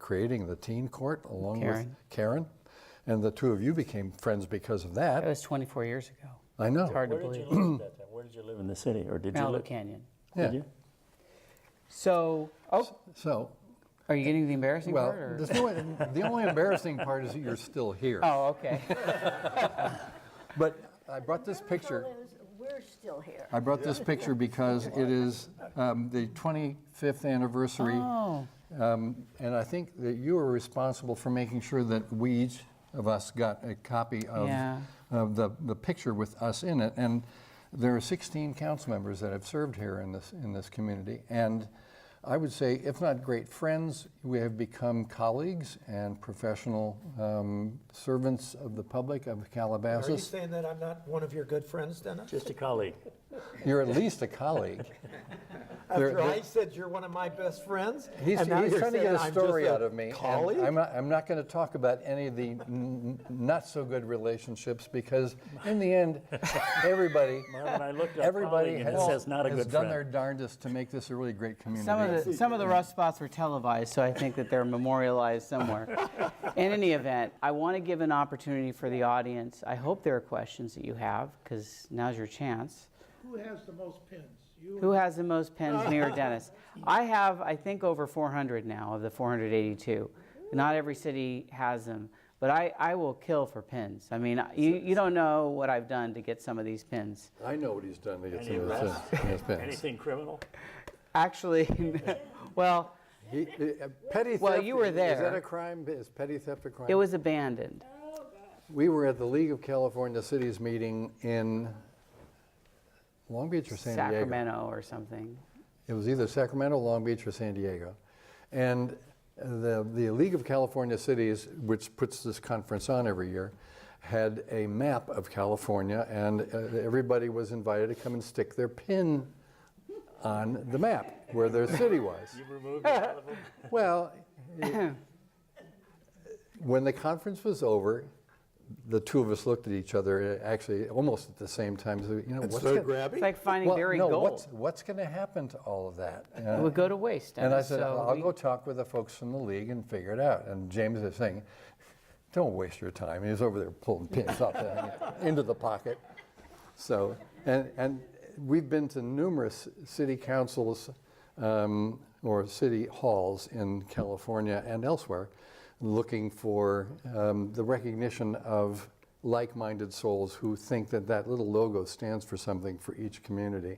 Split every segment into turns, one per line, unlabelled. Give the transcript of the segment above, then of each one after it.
creating the teen court along
Karen.
with Karen. And the two of you became friends because of that.
That was 24 years ago.
I know.
It's hard to
Where did you
believe.
live at that time? Where did you live in the city, or Oh. did you
Malibu
live?
Canyon.
Yeah.
Did you?
So, oh,
So,
are you getting the embarrassing
well,
part? Or?
there's no, the only embarrassing part is that you're still here.
oh, okay.
But I brought this picture.
Miracle is We're still here.
I brought this picture because it is um, the 25th anniversary.
oh,
Um, And I think that you were responsible for making sure that we each of us got a copy of,
Yeah.
of the, the picture with us in it. And there are 16 council members that have served here in this, in this community. And I would say, if not great friends, we have become colleagues and professional um, servants of the public of
Are you
Calabasas.
saying that I'm not one of your good friends, Dennis?
Just a colleague.
You're at least a colleague. They're-
After
they're-
I said you're one of my best friends?
He's,
and now
he's
you're
trying to
saying
get a
I'm
story
just
out of me. and
Colleague?
I'm not, I'm not going to talk about any of the n- n- not so good relationships because, in the end, everybody,
Marvin, I looked up
everybody
colleague and it
has,
says not a
has
good
done
friend.
their darndest to make this a really great community.
some of the some of the rough spots were televised, so I think that they're memorialized somewhere. In any event, I want to give an opportunity for the audience. I hope there are questions that you have, because now's your chance.
Who has the most pins? You
Who has the most pens, me or Dennis? I have, I think, over 400 now of the 482. Not every city has them, but I, I will kill for pins. I mean, I- you, you don't know what I've done to get some of these pins.
I know what he's done to get
Any
some of this
arrests?
in his pants.
Anything criminal?
Actually, well,
He- uh, Petty
Well,
theft,
you were
Is that
there.
a crime? Is petty theft a crime?
it was abandoned.
we were at the League of California Cities meeting in Long Beach or San Diego.
Sacramento or something.
It was either Sacramento, Long Beach, or San Diego. And the, the League of California Cities, which puts this conference on every year, had a map of California, and uh, everybody was invited to come and stick their pin on the map where their city was.
Removed your telephone?
Well, it- when the conference was over, the two of us looked at each other, uh, actually almost at the same time. So, you know, what's
So
gonna-
It's
grabby?
like finding
well,
buried
no,
gold.
what's, what's going to happen to all of that? Uh,
It would go to waste.
and I
Dennis,
said,
so
I'll
we-
go talk with the folks from the league and figure it out. And James is saying, don't waste your time. He was over there pulling pins off the, into the pocket. So, and, and we've been to numerous city councils um, or city halls in California and elsewhere looking for um, the recognition of like-minded souls who think that that little logo stands for something for each community.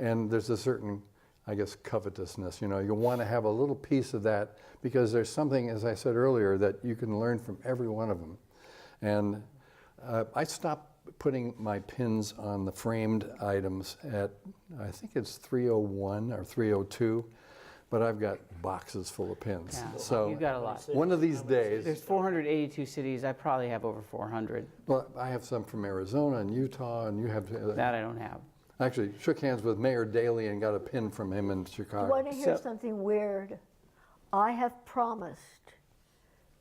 And there's a certain I guess covetousness. You know, you want to have a little piece of that because there's something, as I said earlier, that you can learn from every one of them. And uh, I stopped putting my pins on the framed items at I think it's 301 or 302, but I've got boxes full of pins.
Yeah,
So
you've got a lot.
One of these
There's
days,
482 cities. I probably have over 400.
well, I have some from Arizona and Utah, and you have. uh,
That I don't have.
Actually, shook hands with Mayor Daley and got a pin from him in Chicago.
You want to hear
So-
something weird? I have promised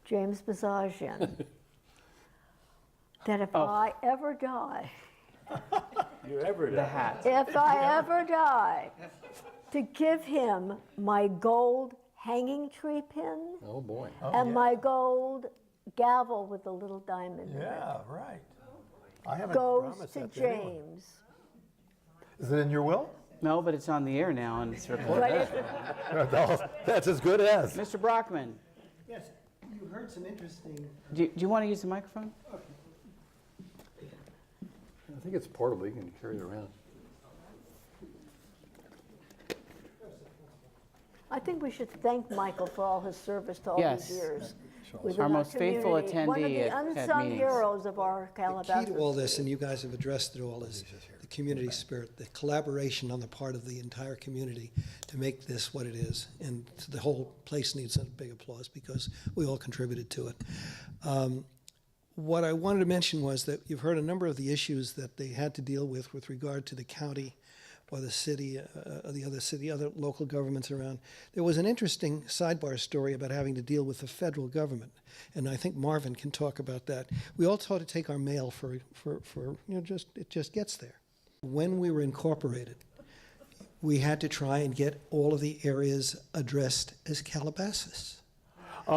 James Bazagian that if
Oh.
I ever die,
You ever
The
done?
hat.
if I ever die, to give him my gold hanging tree pin
Oh boy.
and my gold gavel with the little diamond in it.
Yeah, right. I haven't
Goes
promised
to
that to anyone.
James.
Is it in your will?
No, but it's on the air now and it's recorded.
But if
That's as good as.
Mr. Brockman,
Yes, you heard some interesting
do, do you want to use the microphone?
I think it's portable, you can carry it around.
I think we should thank Michael for all his service to all
Yes.
these years. within
Our most faithful
community. One of
attendee
the
at- at
unsung
meetings.
heroes of our
key to
Calabasas.
all this, and you guys have addressed it all, is the community spirit, the collaboration on the part of the entire community to make this what it is. And the whole place needs a big applause because we all contributed to it. Um, What I wanted to mention was that you've heard a number of the issues that they had to deal with with regard to the county or the city, uh, uh, the other city, other local governments around. There was an interesting sidebar story about having to deal with the federal government, and I think Marvin can talk about that. We all taught to take our mail for, for, for you know, just it just gets there. When we were incorporated, we had to try and get all of the areas addressed as Calabasas.